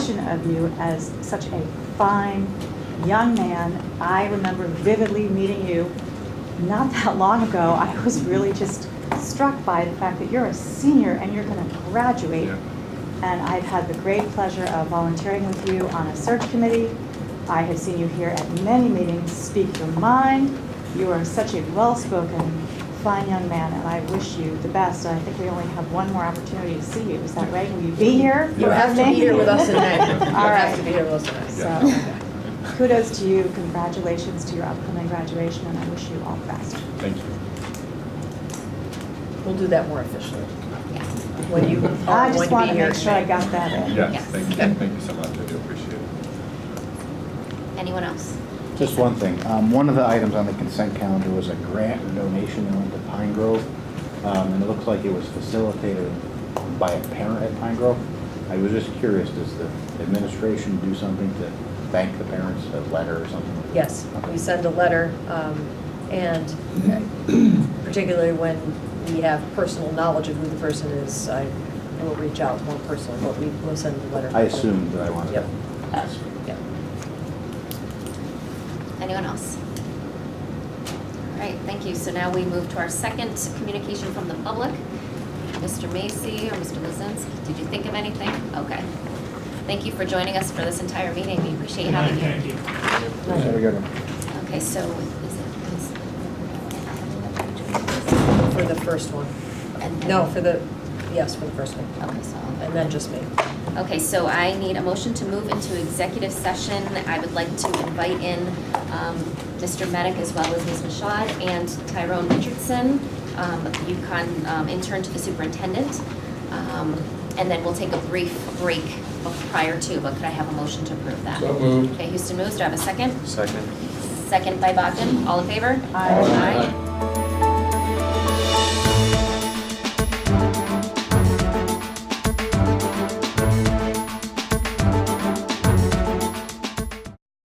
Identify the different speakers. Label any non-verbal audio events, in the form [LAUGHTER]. Speaker 1: perception of you as such a fine young man. I remember vividly meeting you not that long ago. I was really just struck by the fact that you're a senior and you're going to graduate.
Speaker 2: Yeah.
Speaker 1: And I've had the great pleasure of volunteering with you on a search committee. I have seen you here at many meetings, speak your mind. You are such a well-spoken, fine young man, and I wish you the best. And I think we only have one more opportunity to see you. Is that right? Will you be here?
Speaker 3: You
Speaker 1: for
Speaker 3: have to be
Speaker 1: everything?
Speaker 3: here with
Speaker 1: [LAUGHS]
Speaker 3: us tonight. You
Speaker 1: All
Speaker 3: have to be
Speaker 1: right.
Speaker 3: here with us tonight.
Speaker 1: So, kudos to you, congratulations to your upcoming graduation, and I wish you all the best.
Speaker 2: Thank you.
Speaker 3: We'll do that more officially. When you,
Speaker 1: I
Speaker 3: when
Speaker 1: just
Speaker 3: you
Speaker 1: want
Speaker 3: be
Speaker 1: to
Speaker 3: here.
Speaker 1: make sure I got that in.
Speaker 2: Yes, thank you, thank you so much, I do appreciate it.
Speaker 4: Anyone else?
Speaker 5: Just one thing. Um, One of the items on the consent calendar was a grant or donation that went to Pine Grove. Um, And it looks like it was facilitated by a parent at Pine Grove. I was just curious, does the administration do something to thank the parents, a letter or something? like that?
Speaker 3: Yes, we send a letter, um, and particularly when we have personal knowledge of who the person is, I will reach out more personally, but we will send a letter.
Speaker 5: I assumed that I wanted to
Speaker 3: Yep.
Speaker 5: ask.
Speaker 3: Yeah.
Speaker 4: Anyone else? All right, thank you. So now we move to our second communication from the public. Mr. Macy or Mr. Lozinski, did you think of anything? Okay. Thank you for joining us for this entire meeting. We appreciate having you.
Speaker 6: Thank you.
Speaker 5: There we go.
Speaker 4: Okay, so is it, is?
Speaker 3: For the first one.
Speaker 4: And-
Speaker 3: No, for the, yes, for the first one.
Speaker 4: Okay, so.
Speaker 3: And then just me.
Speaker 4: Okay, so I need a motion to move into executive session. I would like to invite in um, Mr. Medic as well as Ms. Mashad and Tyrone Richardson, um, UConn um, intern to the superintendent. Um, And then we'll take a brief break of- prior to, but could I have a motion to approve that?
Speaker 2: So moved.
Speaker 4: Okay, Houston moves. Do I have a second?
Speaker 7: Second.
Speaker 4: Second by Bogdan. All in favor?
Speaker 1: Aye.
Speaker 4: Aye.